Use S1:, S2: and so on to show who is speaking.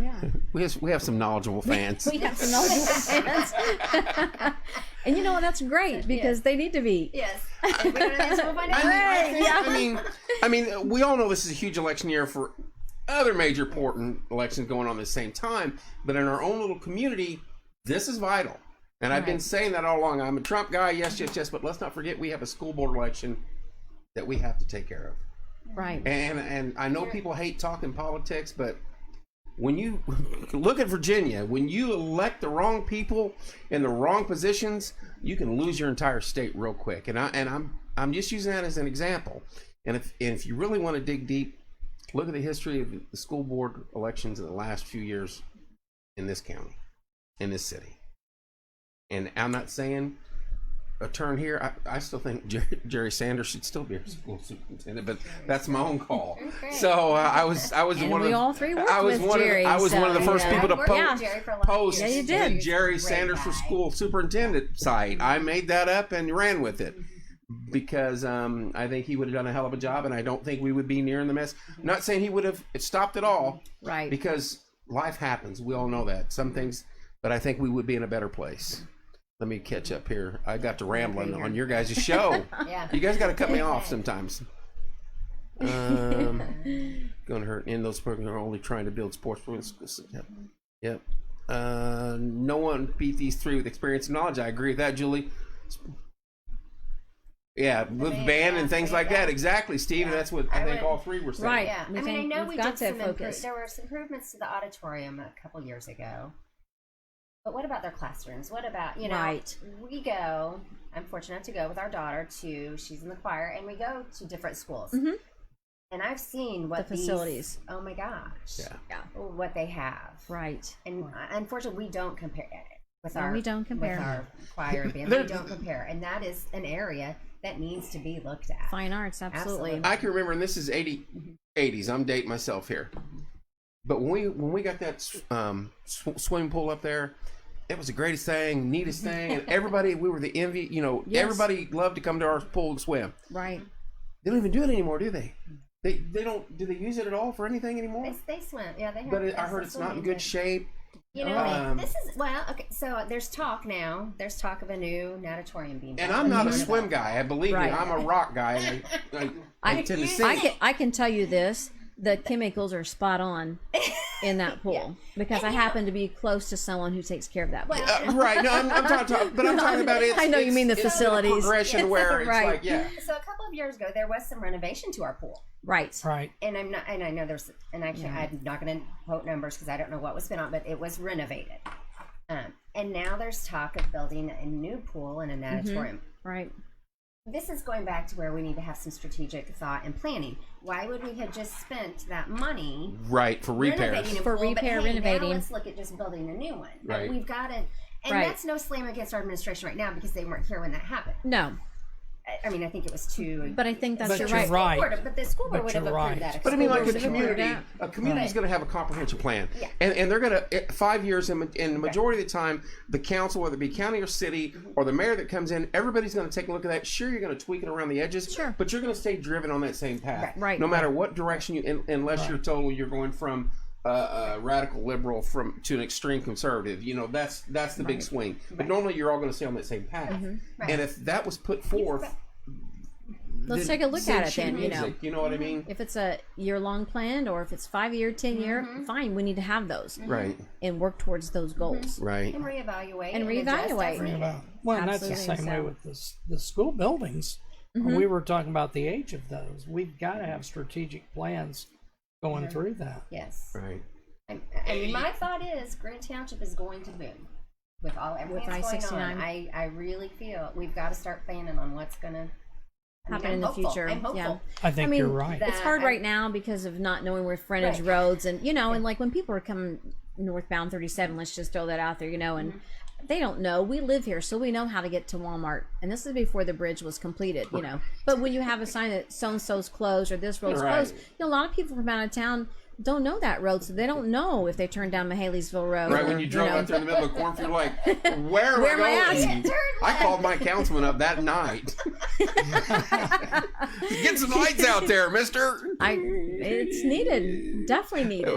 S1: Yeah.
S2: We have we have some knowledgeable fans.
S1: We have some knowledgeable fans. and you know what? That's great because they need to be.
S3: Yes. If we don't answer, we'll find
S2: I mean,
S3: out.
S2: I,
S1: Right,
S2: think-
S1: yeah.
S2: I mean, I mean, we all know this is a huge election year for other major important elections going on at the same time, but in our own little community, this is vital. And I've been
S1: Right.
S2: saying that all along. I'm a Trump guy, yes, yes, yes, but let's not forget we have a school board election that we have to take care of.
S1: Right.
S2: And and I know people hate talking politics, but when you look at Virginia, when you elect the wrong people in the wrong positions, you can lose your entire state real quick. And I and I'm I'm just using that as an example. And if and if you really want to dig deep, look at the history of the school board elections in the last few years in this county, in this city. And I'm not saying a turn here. I, I still think Jerry, Jerry Sanders should still be our school superintendent, but that's my own call. So uh, I was I was
S1: And
S2: one
S1: we
S2: of the-
S1: all three worked
S2: I was
S1: with
S2: one
S1: Jerry,
S2: of the, I was one of the
S1: so,
S2: first
S1: yeah.
S2: people to
S3: I worked with
S2: post
S3: Jerry for a lot of
S2: post
S3: years.
S1: Yeah, you
S2: the
S1: did.
S2: Jerry
S3: Great
S2: Sanders for
S3: guy.
S2: school superintendent site. I made that up and ran with it because um, I think he would have done a hell of a job, and I don't think we would be near in the mess. Not saying he would have stopped at all,
S1: Right.
S2: because life happens. We all know that. Some things, but I think we would be in a better place. Let me catch up here. I got to rambling on your guys' show.
S3: Yeah.
S2: you guys got to cut me off sometimes. Um, gonna hurt. And those programs are only trying to build sports programs. Yep. Yep. Uh, no one beat these three with experience and knowledge. I agree with that, Julie. Yeah, with
S3: band,
S2: band and
S3: yeah,
S2: things
S3: band,
S2: like that.
S3: yeah.
S2: Exactly, Steve. And that's what I,
S3: I
S2: think
S3: would-
S2: all three were saying.
S1: Right.
S3: Yeah,
S1: We
S3: I mean, I
S1: think
S3: know
S1: we've
S3: we
S1: got
S3: did
S1: to
S3: some improvements.
S1: focus.
S3: There were some improvements to the auditorium a couple years ago. But what about their classrooms? What about you know?
S1: Right.
S3: We go. I'm fortunate to go with our daughter to. She's in the choir, and we go to different schools.
S1: Mhm.
S3: And I've seen what
S1: The
S3: these-
S1: facilities.
S3: oh my gosh!
S2: Yeah.
S1: Yeah.
S3: What they have.
S1: Right.
S3: And uh, unfortunately, we don't compare it with
S1: No,
S3: our
S1: we don't compare.
S3: with our choir and band.
S2: There-
S3: we don't compare, and that is an area that needs to be looked at.
S1: Fine arts, absolutely.
S3: Absolutely.
S2: I can remember, and this is 80, 80s. I'm dating myself here. But when we when we got that um, sw- swimming pool up there, it was the greatest thing, neatest thing, and everybody we were the envy. You know,
S1: Yes.
S2: everybody loved to come to our pool and swim.
S1: Right.
S2: They don't even do it anymore, do they? They they don't do they use it at all for anything anymore?
S3: It's, they swim. Yeah, they have.
S2: but it, I
S3: there's
S2: heard
S3: a
S2: it's not in
S3: swimming
S2: good
S3: pool.
S2: shape.
S3: You know,
S2: Um,
S3: this is well. Okay, so there's talk now. There's talk of a new natatorium being.
S2: And
S3: built.
S2: I'm not a swim guy. I believe
S1: Right.
S2: me, I'm a rock guy. And I, I, I, tend to
S1: I
S2: sink.
S1: can, I can tell you this the chemicals are spot on in that pool because I happen to be close to someone who takes care of that pool.
S2: Uh, right? No, I'm, I'm talking, talking- but I'm talking about it.
S1: I know you mean the facilities.
S2: progression where it's
S1: Right.
S2: like yeah.
S3: So a couple of years ago, there was some renovation to our pool,
S1: Right.
S4: Right.
S3: and I'm not. And I know there's. And I can't. I'm not going to quote numbers because I don't know what was spent on, but it was renovated. Um, and now there's talk of building a new pool and a
S1: Mm-hmm.
S3: natatorium.
S1: Right.
S3: This is going back to where we need to have some strategic thought and planning. Why would we have just spent that money?
S2: Right for repairs.
S3: renovating a
S1: For
S3: pool, but
S1: repair,
S3: hey,
S1: renovating.
S3: Now let's look at just building a new one. But
S2: Right.
S3: We've got to, and
S1: Right.
S3: that's no slam against our administration right now because they weren't here when that happened.
S1: No,
S3: I, I mean, I think it was two.
S1: but I think that's
S4: But
S1: your
S4: you're
S1: right.
S4: right.
S3: Board, but the school board
S4: But
S3: would have
S4: you're
S3: approved
S4: right.
S3: that. if
S2: But I mean,
S3: school
S2: like
S3: board
S2: a
S3: would have
S2: community,
S1: that.
S2: a community's going to have a comprehensive plan,
S3: Yeah.
S2: and and they're going to five years in, in the majority of the time, the council, whether it be county or city or the mayor that comes in, everybody's going to take a look at that. Sure, you're going to tweak it around the edges,
S1: Sure.
S2: but you're going to stay driven on that same path,
S1: Right.
S2: No matter what direction you, un- unless you're total, you're going from. Uh, uh, radical liberal from to an extreme conservative, you know that's that's the big swing. But normally you're all going to stay on that same path,
S1: Mm-hmm.
S2: and if that was put forth,
S1: Let's
S2: then
S1: take a look
S2: sing
S1: at it
S2: sheet
S1: then, you know.
S2: music, you know what I mean,
S1: If it's a year long plan or if it's five year, 10 year, fine, we need to have those
S2: right,
S1: and work towards those goals.
S2: right.
S3: And reevaluate.
S1: And
S3: adjust as
S1: reevaluate.
S3: needed.
S4: Well, well and that's the
S1: Absolutely,
S4: same way
S1: so- Mm-hmm.
S4: with the s- the school buildings. We were talking about the age of those. We've got to have strategic plans going through that.
S3: Yes.
S2: Right.
S3: I, I mean, my thought is Grand Township is going to boom with all everything
S1: With
S3: that's going
S1: I-69.
S3: on. I, I really feel we've got to start planning on what's going to
S1: Happen in the future,
S3: I'm hopeful.
S1: yeah.
S4: I think
S1: mean,
S4: you're right.
S3: that-
S1: It's hard
S3: I-
S1: right now because of not knowing where frontage
S3: Right.
S1: roads and, you know, and like when people are coming northbound 37, let's just throw that out there, you know, and
S3: Mm-hmm.
S1: they don't know. We live here, so we know how to get to Walmart. And this is before the bridge was completed, you know. But when you have a sign that so and so's closed or this road's
S2: Right.
S1: closed, you know, a lot of people from out of town don't know that road, so they don't know if they turn down Mahaleysville Road.
S2: Right
S1: or,
S2: when you drove
S1: know,
S2: out there in the middle of a cornfield, like, where am
S1: Where am I
S2: I
S1: at?
S2: going? I called my councilman up that night. Get some lights out there, mister.
S1: I it's needed, definitely needed.